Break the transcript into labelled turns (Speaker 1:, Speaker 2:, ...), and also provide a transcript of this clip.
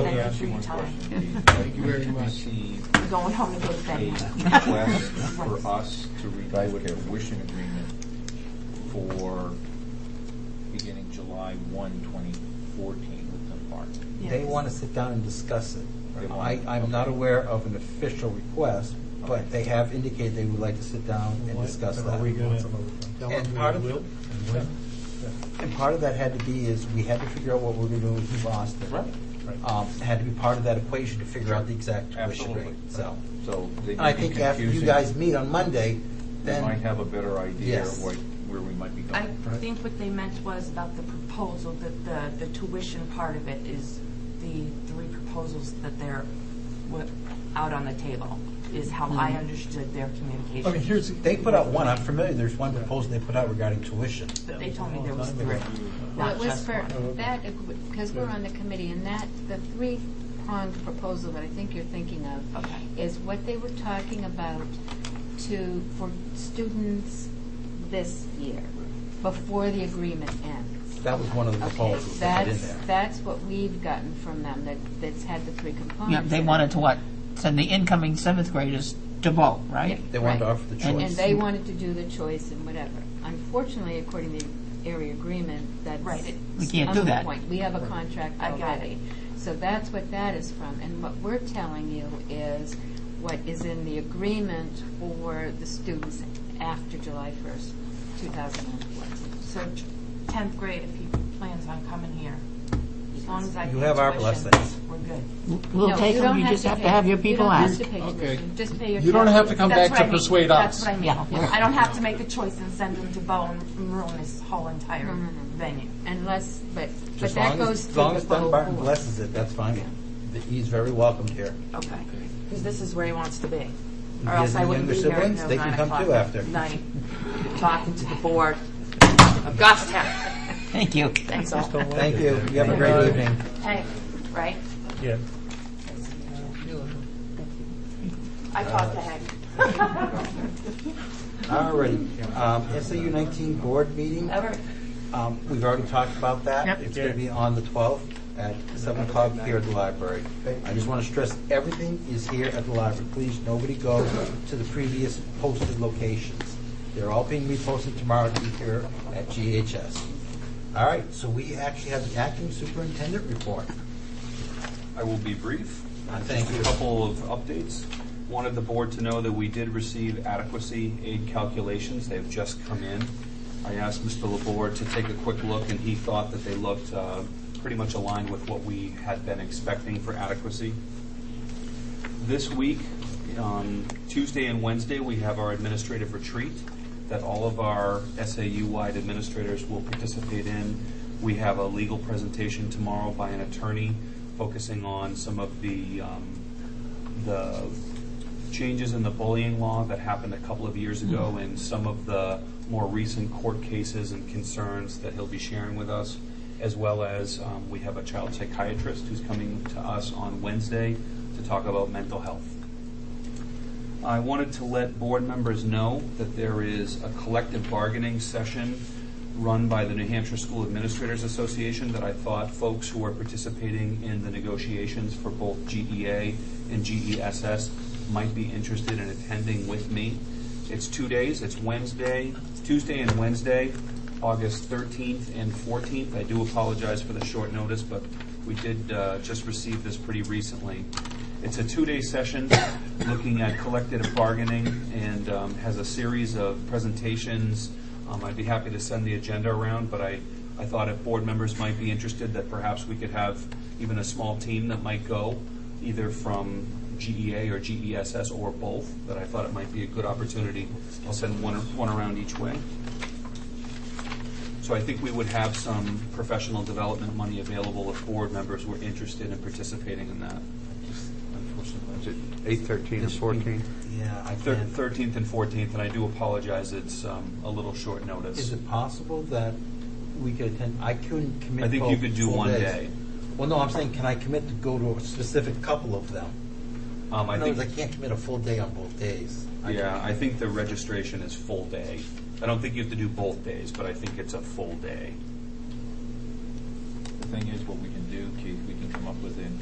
Speaker 1: ask you one question.
Speaker 2: Thank you very much.
Speaker 1: Receive
Speaker 3: I'm going home to go to
Speaker 1: a
Speaker 3: bed now.
Speaker 1: request for us to review a tuition agreement for beginning July 1, 2014 with Tim Park.
Speaker 4: They want to sit down and discuss it.
Speaker 1: They
Speaker 4: I,
Speaker 1: want-
Speaker 4: I'm not
Speaker 1: okay.
Speaker 4: aware of an official request,
Speaker 1: Okay.
Speaker 4: but they have indicated they would like to sit down and discuss that.
Speaker 5: Are we going to tell
Speaker 4: And
Speaker 5: them
Speaker 4: part
Speaker 5: we
Speaker 4: of-
Speaker 5: will? and when?
Speaker 4: And part of that had to be is, we had to figure out what we were doing with Boston.
Speaker 1: Right.
Speaker 4: Um, it Had to be part of that equation to figure out the exact tuition
Speaker 1: Absolutely.
Speaker 4: rate, so.
Speaker 1: So they
Speaker 4: And
Speaker 1: may
Speaker 4: I
Speaker 1: be
Speaker 4: think after you
Speaker 1: confusing.
Speaker 4: guys meet on Monday,
Speaker 1: We might
Speaker 4: then,
Speaker 1: have a better idea
Speaker 4: Yes.
Speaker 1: what, where we might be
Speaker 3: I
Speaker 1: going.
Speaker 3: think what they meant was about the proposal, that the, the tuition part of it is the three proposals that they're, what, out on the table, is how
Speaker 6: Mm-hmm.
Speaker 3: I understood their communication.
Speaker 5: I mean, here's.
Speaker 4: they put out one, I'm familiar, there's one proposal they put out regarding tuition.
Speaker 3: But they told me there was three,
Speaker 7: Well, it
Speaker 3: not
Speaker 7: was
Speaker 3: just
Speaker 7: for
Speaker 3: one.
Speaker 7: that, because we're on the committee, and that, the three-pronged proposal that I think you're thinking of
Speaker 3: Okay.
Speaker 7: is what they were talking about to, for students this year, before the agreement ends.
Speaker 4: That was one of the
Speaker 7: Okay,
Speaker 4: proposals they had in
Speaker 7: that's,
Speaker 4: there.
Speaker 7: that's what we've gotten from them, that, that's had the three components.
Speaker 6: Yeah, they
Speaker 7: in it.
Speaker 6: wanted to what? Send the incoming seventh graders to vote, right?
Speaker 7: Yeah,
Speaker 4: They wanted to
Speaker 7: right.
Speaker 4: offer the
Speaker 7: And-
Speaker 4: choice.
Speaker 7: And they wanted to do the choice and whatever. Unfortunately, according to the area agreement, that's.
Speaker 3: Right. It-
Speaker 6: we can't do
Speaker 7: moot
Speaker 6: that.
Speaker 7: point. We have a contract
Speaker 3: I got it.
Speaker 7: already. So that's what that is from. And what we're telling you is what is in the agreement for the students after July 1st, 2014.
Speaker 3: So 10th grade, if he plans on coming here, as long as I pay
Speaker 4: You have our
Speaker 3: tuition,
Speaker 4: blessings.
Speaker 3: We're good.
Speaker 6: We'll
Speaker 7: No,
Speaker 6: take
Speaker 7: don't
Speaker 6: them, you just have to
Speaker 7: pay-
Speaker 6: have your
Speaker 7: you
Speaker 6: people
Speaker 7: don't have
Speaker 6: asked.
Speaker 7: to pay
Speaker 2: Okay.
Speaker 7: tuition. Just pay your.
Speaker 2: You don't have to
Speaker 7: taxes.
Speaker 2: come
Speaker 3: That's
Speaker 2: back to
Speaker 3: what I mean.
Speaker 2: persuade us.
Speaker 3: That's what I
Speaker 6: Yeah,
Speaker 3: mean.
Speaker 6: yeah.
Speaker 3: I don't have to make a choice and send them to Bo and ruin this whole entire
Speaker 7: No, no, no.
Speaker 3: venue.
Speaker 7: Unless, but, but
Speaker 4: As
Speaker 7: that
Speaker 4: long as,
Speaker 7: goes
Speaker 4: as
Speaker 7: through
Speaker 4: long
Speaker 7: the
Speaker 4: as
Speaker 7: whole
Speaker 4: Dunbarton
Speaker 7: board.
Speaker 4: blesses it, that's fine. Th- He's very welcomed here.
Speaker 3: Okay. Because this is where he wants to be.
Speaker 4: He
Speaker 3: Or
Speaker 4: has
Speaker 3: else I
Speaker 4: his
Speaker 3: wouldn't be
Speaker 4: younger
Speaker 3: here
Speaker 4: siblings,
Speaker 3: until
Speaker 4: they can
Speaker 3: nine
Speaker 4: come
Speaker 3: o'clock
Speaker 4: too
Speaker 3: at
Speaker 4: after.
Speaker 3: night, talking to the board of Goffstown.
Speaker 6: Thank you.
Speaker 3: That's all.
Speaker 4: Thank you. You have a great evening.
Speaker 3: Hey, right?
Speaker 5: Yeah.
Speaker 3: I talked to Hank.
Speaker 4: Uh, All righty. Um, SAU 19 board meeting. Um, We've already talked about that. It's going to be on the 12th at 7 o'clock here at the library. I just want to stress, everything is here at the library. Please, nobody go to the previous posted locations. They're all being reposted tomorrow to be here at GHS. All right, so we actually have the acting superintendent report.
Speaker 8: I will be brief.
Speaker 4: Uh, thank
Speaker 8: Just
Speaker 4: you.
Speaker 8: a couple of updates. Wanted the board to know that we did receive adequacy aid calculations. They've just come in. I asked Mr. Labor to take a quick look, and he thought that they looked uh, pretty much aligned with what we had been expecting for adequacy. This week, um, Tuesday and Wednesday, we have our administrative retreat that all of our SAU-wide administrators will participate in. We have a legal presentation tomorrow by an attorney focusing on some of the, um, the changes in the bullying law that happened a couple of years ago and some of the more recent court cases and concerns that he'll be sharing with us, as well as um, we have a child psychiatrist who's coming to us on Wednesday to talk about mental health. I wanted to let board members know that there is a collective bargaining session run by the New Hampshire School Administrators Association that I thought folks who are participating in the negotiations for both GEA and GESS might be interested in attending with me. It's two days, it's Wednesday, Tuesday and Wednesday, August 13th and 14th. I do apologize for the short notice, but we did uh, just receive this pretty recently. It's a two-day session looking at collective bargaining and um, has a series of presentations. Um, I'd be happy to send the agenda around, but I, I thought if board members might be interested, that perhaps we could have even a small team that might go, either from GEA or GESS or both, that I thought it might be a good opportunity. I'll send one, one around each way. So I think we would have some professional development money available if board members were interested in participating in that.
Speaker 2: Is it eight thirteen or
Speaker 4: This week-
Speaker 2: fourteen?
Speaker 4: Yeah, I
Speaker 8: Thir-
Speaker 4: can.
Speaker 8: 13th and 14th, and I do apologize, it's um, a little short
Speaker 4: Is
Speaker 8: notice.
Speaker 4: it possible that we could attend, I couldn't commit.
Speaker 8: I think you
Speaker 4: both
Speaker 8: could do
Speaker 4: full
Speaker 8: one
Speaker 4: days.
Speaker 8: day.
Speaker 4: Well, no, I'm saying, can I commit to go to a specific couple of them?
Speaker 8: Um, I
Speaker 4: In other words, I
Speaker 8: think,
Speaker 4: can't commit a full day on both days. I
Speaker 8: yeah, I think the registration is full day. I don't think you have to do both days, but I think it's a full day.
Speaker 1: The thing is, what we can do, Keith, we can come up with an